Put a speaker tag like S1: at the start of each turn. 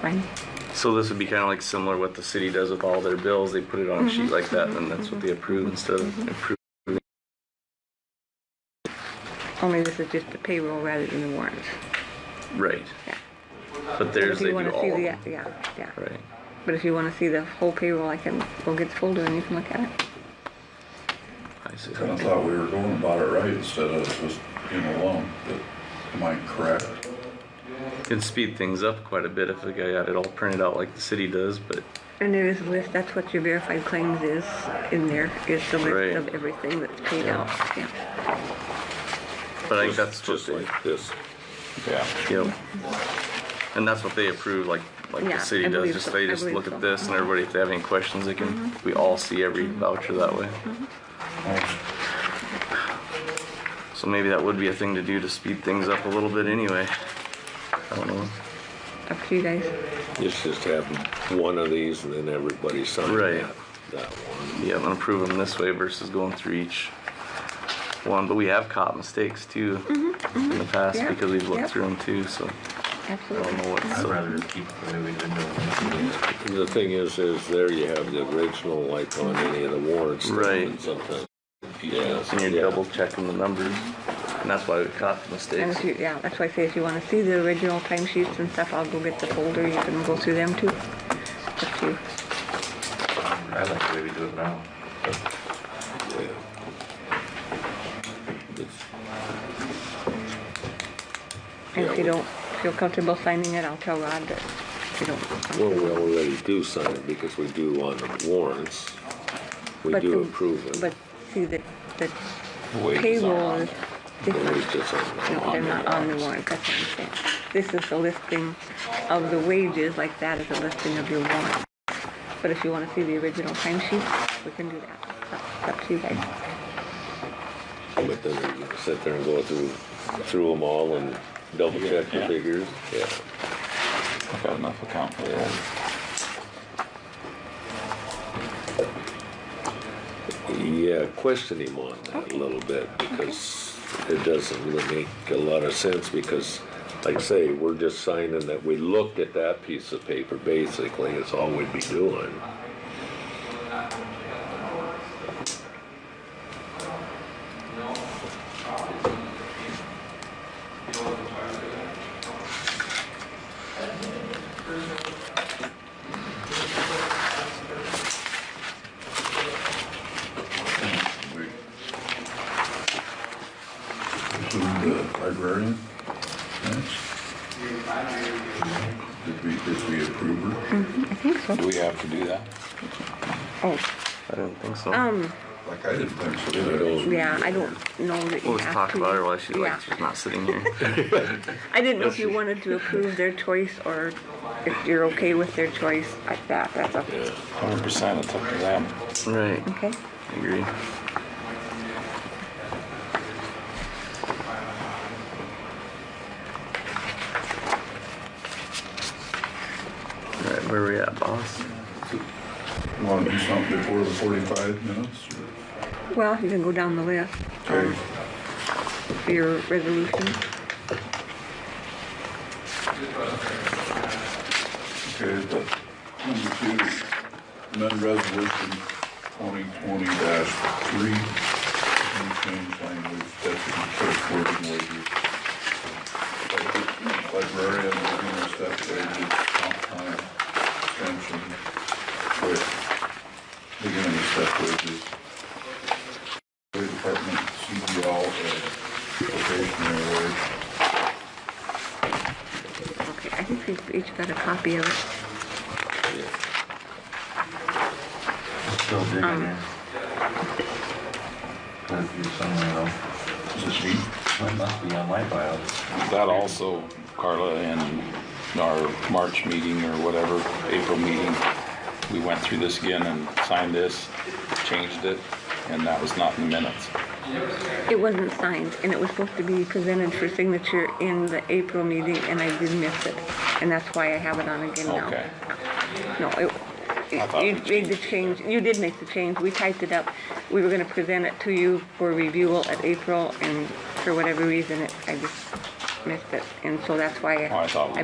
S1: fine.
S2: So this would be kind of like similar what the city does with all their bills. They put it on a
S1: Mm-hmm.
S2: sheet like that, and then that's what they approve instead of approve.
S1: Only this is just the payroll rather than the warrants.
S2: Right.
S1: Yeah.
S2: But theirs,
S1: If
S2: they
S1: you
S2: do all
S1: want
S2: of
S1: to see the, e-,
S2: them.
S1: yeah, yeah.
S2: Right.
S1: But if you want to see the whole payroll, I can go get the folder and you can look at it.
S2: I see.
S3: Kinda thought we were going about it right instead of just being alone, but am I correct?
S2: It'd speed things up quite a bit if the guy had it all printed out like the city does, but
S1: And there is a list, that's what your verified claims is in there, is the
S2: Right.
S1: list of everything that's paid out, yeah.
S2: but I think that's what
S4: Just
S2: they,
S4: like this. Yeah.
S2: yep. And that's what they approve, like like
S1: Yeah,
S2: the city
S1: I
S2: does.
S1: believe
S2: Just
S1: so.
S2: they
S1: I
S2: just
S1: believe
S2: look
S1: so. Mm-hmm.
S2: at this, and everybody, if they have any questions, they can. We all see every voucher that way.
S1: Mm-hmm.
S2: So maybe that would be a thing to do to speed things up a little bit, anyway. I don't know.
S1: Up to you guys.
S4: It's just having one of these and then everybody sign
S2: Right.
S4: that, that one.
S2: Yeah, I'm gonna prove them this way versus going through each one. But we have caught mistakes too in the
S1: Mm-hmm,
S2: past
S1: Yeah,
S2: because we've looked
S1: yeah.
S2: through them too. So I
S1: Absolutely.
S2: don't know what.
S5: I'd
S2: So,
S5: rather keep the new individual.
S4: The thing is, is there you have the original like on any of the warrants.
S2: Right.
S4: and Sometimes. Yes.
S2: and you're
S4: yeah.
S2: double checking the numbers, and that's why we caught the
S1: And
S2: mistakes.
S1: if you, yeah, that's why I say if you want to see the original timesheets and stuff, I'll go get the folder, you can go through them too. Up to you.
S5: I like the way we do it now.
S4: Yeah. It's-
S1: And if you
S4: Yeah.
S1: don't feel comfortable signing it, I'll tell Rod that if you don't.
S4: Well, we already do sign it because we do on the warrants. We
S1: But
S4: do
S1: the-
S4: approve it.
S1: But see, the, the
S4: Wages are
S1: payroll
S4: on
S1: is
S4: there. The
S1: different.
S4: wages are
S1: No,
S4: on
S1: they're not on the
S4: warrants.
S1: warrant, that's what I'm saying. This is the listing of the wages, like that is a listing of your warrant. But if you want to see the original timesheet, we can do that. It's up to you guys.
S4: But then we can sit there and go through, through them all and double check the
S6: Yeah.
S4: figures, yeah.
S6: I've got enough account for that.
S4: Yeah, question him on that a little bit because it doesn't really make a lot of sense because like I say, we're just signing that we looked at that piece of paper, basically, is all we'd be doing.
S3: We Include the librarian, thanks. Did we, did we approve her?
S6: Do we have to do that?
S1: Oh,
S2: I don't think so.
S1: Um,
S3: Like, I didn't think so.
S4: I
S3: either.
S4: don't-
S1: yeah, I don't know that
S2: we'll
S1: you
S2: just
S1: have
S2: talk
S1: to.
S2: about her while she's
S1: Yeah.
S2: like she's not sitting here.
S1: I didn't know if you wanted to approve their choice or if you're okay with their choice like that, that's up to you.
S6: Hundred percent, it's up to them.
S2: right.
S1: Okay?
S2: I agree. Alright, where we at, boss?
S3: You wanna do something before the forty-five minutes?
S1: Well, you can go down the list
S3: or-
S1: Um,
S3: Okay,
S1: for your resolution.
S3: okay, but number two, amend resolution twenty twenty three. Change language, deputy clerk wording wages. Librarian, beginning step wages, comp time, extension, quit. Beginning step wages. Highway Department, CDL, uh, probationary wage.
S1: Okay, I think we've each got a copy of it.
S5: Still digging in. Put it through somewhere else.
S3: Is this me?
S5: It must be on my file.
S6: That also, Carla, in our March meeting or whatever, April meeting, we went through this again and signed this, changed it, and that was not in the minutes.
S1: It wasn't signed, and it was supposed to be presented for signature in the April meeting, and I did miss it. And that's why I have it on again now.
S6: Okay.
S1: No, it,
S6: I thought
S1: you
S6: we
S1: made the change, you did make the change, we typed it up. We were gonna present it to you for review at April, and for whatever reason, it- I just missed it. And so that's why
S6: Oh, I thought we